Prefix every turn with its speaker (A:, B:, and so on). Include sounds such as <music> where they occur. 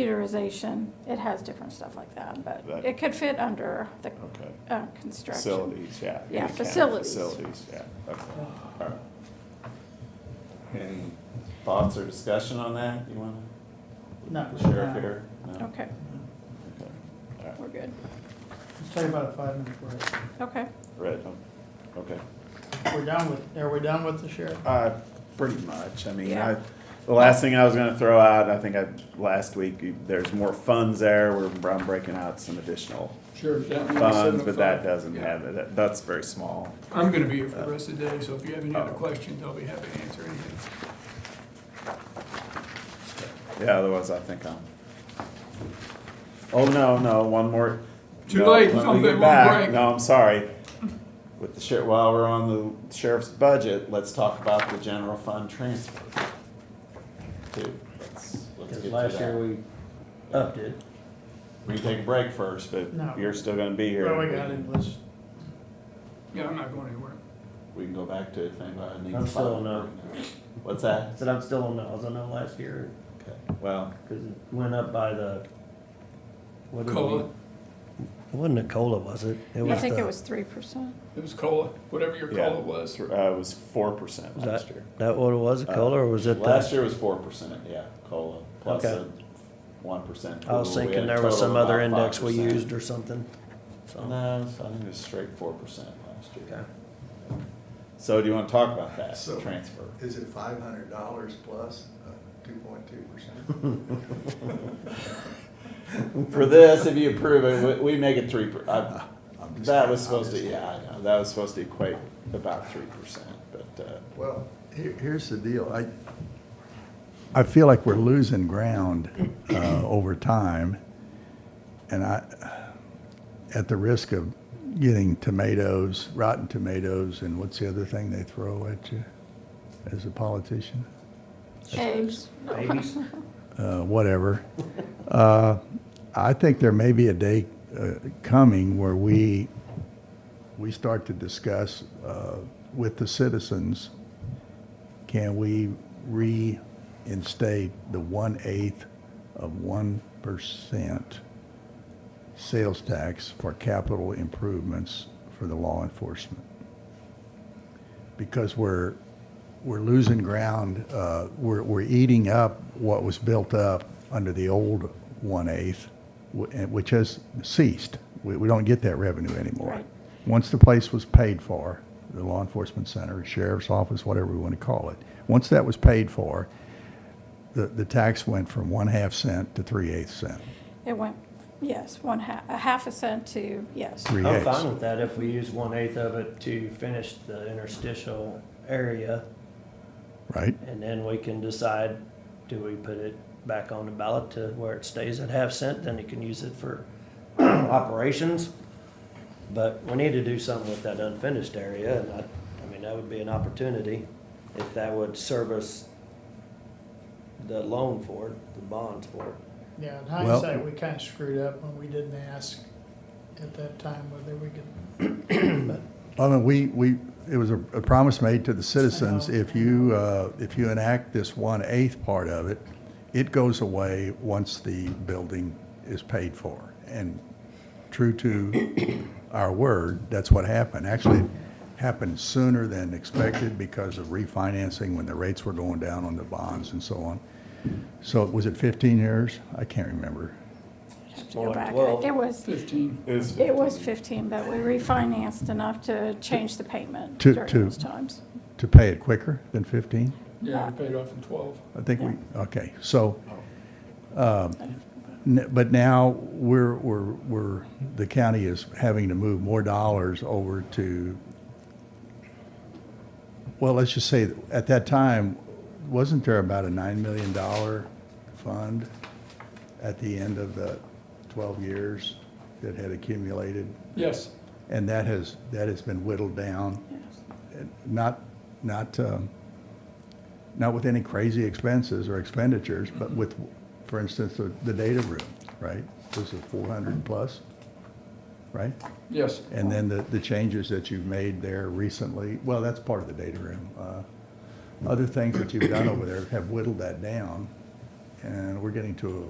A: computerization, it has different stuff like that, but
B: That-
A: it could fit under the
B: Okay.
A: uh, construction.
B: Facilities, yeah.
A: Yeah,
B: any kind of
A: facilities.
B: Facilities, yeah, okay, all right. Any thoughts or discussion on that, you wanna?
C: No.
B: The Sheriff
C: no.
B: here? No?
A: Okay,
D: Oh.
B: Okay, all right,
A: we're good.
C: Let's take about a five minute break.
A: Okay,
B: right, um, okay.
C: We're done with, are we done with the sheriff?
B: Uh, pretty much. I mean, I,
A: Yeah.
B: the last thing I was gonna throw out, I think I, last week, you- there's more funds there, we're, I'm breaking out some additional
E: Sure. is that number
B: funds, but that
E: 705?
B: doesn't
E: Yeah.
B: have it, That- that's very small.
E: I'm gonna be here for the rest of the day, so if you have any other
B: Oh.
E: questions, I'll be happy to answer anything.
B: Yeah, otherwise I think I'm. Oh, no, no, one more.
E: Too
B: no,
E: late,
B: let
E: I'm
B: me get
E: on
B: back.
E: break.
B: No, I'm sorry. With the sheriff, while we're on the sheriff's budget, let's talk about the general fund transfer. Dude, let's, let's get
D: Because
B: to
D: last year
B: that.
D: we oh. upped it.
B: We can take a break first, but
C: No.
B: you're still gonna be here.
C: Well, we got it, let's,
E: Yeah, I'm not going anywhere.
B: We can go back to it if anybody needs.
D: I'm still
B: five.
D: not.
B: What's
D: I
B: that?
D: said I'm still on, the- I was on that last year,
B: Okay. Well,
D: cause it went up by the. what did we-
E: Cola,
D: It wasn't a cola, was it?
A: I think
D: the-
A: it was three percent.
E: it was cola, whatever your
B: yeah,
E: cola was.
B: uh, it was four percent
D: was
B: last
D: that-
B: year.
D: That what it was, a
B: Uh,
D: cola, or was it
B: Last
D: the,
B: year was four percent, yeah, COLA, plus
D: Okay.
B: a one percent.
D: I was thinking there was some other index we used or something. So,
B: No, it's- I think it was straight four percent last
D: okay.
B: year. So do you wanna talk about that,
F: So- <laughs>
B: transfer?
F: Is it five hundred dollars plus uh, two point two percent?
B: <laughs> For this, if you approve it, we, we make it three, per- I,
F: I'm just-
B: that was
F: I'm
B: supposed to,
F: just-
B: yeah, I know, that was supposed to equate about three percent, but, uh,
F: Well, here, here's the deal. I, I feel like we're losing ground uh, over time. And I, at the risk of getting tomatoes, rotten tomatoes, and what's the other thing they throw at you as a politician?
A: Eggs.
D: Babies,
F: uh, whatever. Uh, I think there may be a day uh, coming where we, we start to discuss uh, with the citizens, can we reinstate the one-eighth of one percent sales tax for capital improvements for the law enforcement? Because we're, we're losing ground. Uh, we're, we're eating up what was built up under the old one-eighth, wh- and- which has ceased. We, we don't get that revenue anymore.
A: Right.
F: Once the place was paid for, the law enforcement center, sheriff's office, whatever we want to call it, once that was paid for, the, the tax went from one-half cent to three-eighths cent,
A: It went, yes, one half, a half a cent to, yes.
D: I'm
F: three-eighths.
D: fine with that if we use one eighth of it to finish the interstitial area,
F: Right?
D: and then we can decide, do we put it back on the ballot to where it stays at half cent, then you can use it for <clears throat> operations? But we need to do something with that unfinished area, and I, I mean, that would be an opportunity if that would service the loan for it, the bonds for it.
C: yeah, in
F: Well-
C: hindsight, we kinda screwed up when we didn't ask at that time whether we could
F: I mean, we, we, it was a a promise made to the citizens,
C: I know.
F: if you, uh, if you enact this one-eighth part of it, it goes away once the building is paid for. And true to our word, that's what happened. Actually, it happened sooner than expected because of refinancing when the rates were going down on the bonds and so on. So was it 15 years? I can't remember.
A: I'd have to go
D: Well,
A: back.
D: well-
A: It was,
E: Fifteen.
B: is,
A: it was fifteen, but we refinanced enough to change the payment
F: To-
A: during
F: to-
A: those times.
F: To pay it quicker than 15?
E: Yeah, we paid off in twelve.
F: I think we, okay, so, um, n- but now we're, we're, we're, the county is having to move more dollars over to, well, let's just say, that at that time, wasn't there about a $9 million fund at the end of the 12 years that had accumulated?
E: Yes,
F: And that has, that has been whittled down
A: Yes.
F: not, not, um, not with any crazy expenses or expenditures, but with, for instance, the, the data room, right? This is four hundred plus, right?
E: yes.
F: And then the, the changes that you've made there recently, well, that's part of the data room. Uh, Other things that you've done over there have whittled that down, and we're getting to